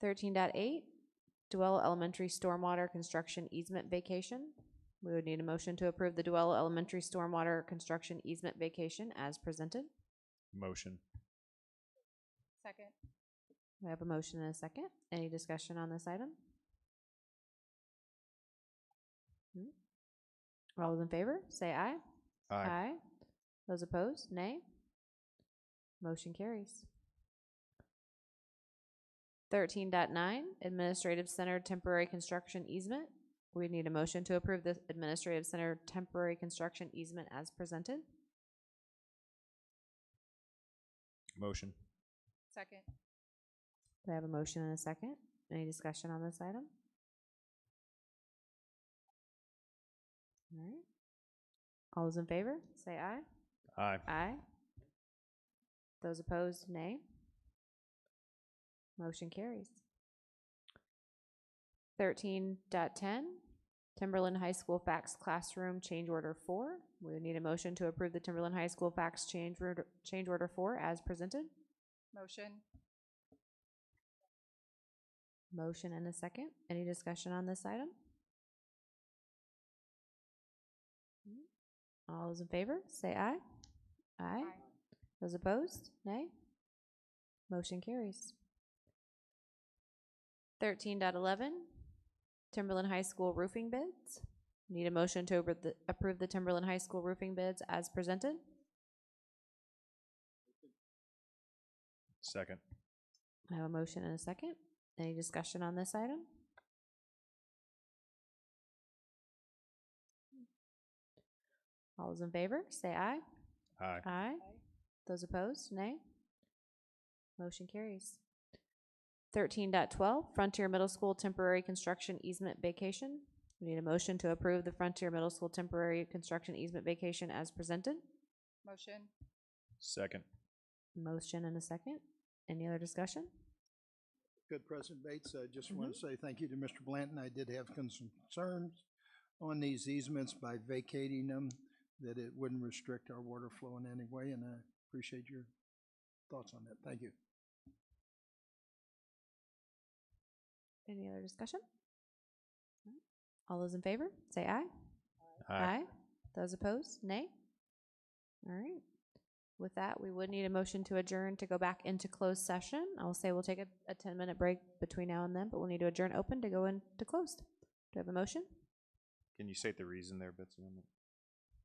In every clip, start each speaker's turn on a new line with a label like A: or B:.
A: Thirteen point eight, Duello Elementary Stormwater Construction Easement Vacation. We would need a motion to approve the Duello Elementary Stormwater Construction Easement Vacation as presented.
B: Motion.
C: Second.
A: We have a motion and a second. Any discussion on this item? Hmm? All those in favor, say aye.
B: Aye.
A: Those opposed, nay. Motion carries. Thirteen point nine, Administrative Center Temporary Construction Easement. We need a motion to approve the Administrative Center Temporary Construction Easement as presented.
B: Motion.
C: Second.
A: Do I have a motion and a second? Any discussion on this item? All right. All those in favor, say aye.
B: Aye.
A: Aye. Those opposed, nay. Motion carries. Thirteen point ten, Timberland High School Fax Classroom Change Order Four. We would need a motion to approve the Timberland High School Fax Change Order, Change Order Four as presented.
C: Motion.
A: Motion and a second. Any discussion on this item? Hmm. All those in favor, say aye. Aye. Those opposed, nay. Motion carries. Thirteen point eleven, Timberland High School roofing bids. Need a motion to approve the- approve the Timberland High School roofing bids as presented.
B: Second.
A: I have a motion and a second. Any discussion on this item? All those in favor, say aye.
B: Aye.
A: Aye. Those opposed, nay. Motion carries. Thirteen point twelve, Frontier Middle School Temporary Construction Easement Vacation. We need a motion to approve the Frontier Middle School Temporary Construction Easement Vacation as presented.
C: Motion.
B: Second.
A: Motion and a second. Any other discussion?
D: Good, President Bates. I just want to say thank you to Mr. Blanton. I did have con- some concerns on these easements by vacating them, that it wouldn't restrict our water flow in any way, and I appreciate your thoughts on that. Thank you.
A: Any other discussion? All those in favor, say aye. Those opposed, nay. All right. With that, we would need a motion to adjourn to go back into closed session. I'll say we'll take a, a ten-minute break between now and then, but we'll need to adjourn open to go into closed. Do I have a motion?
B: Can you state the reason there, Betsy, on that?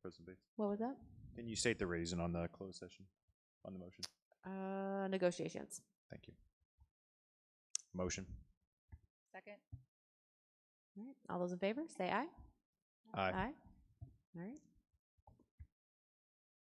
B: President Bates?
A: What was that?
B: Can you state the reason on the closed session, on the motion?
A: Uh, negotiations.
B: Thank you. Motion.
C: Second.
A: All right. All those in favor, say aye.
B: Aye.
A: Aye.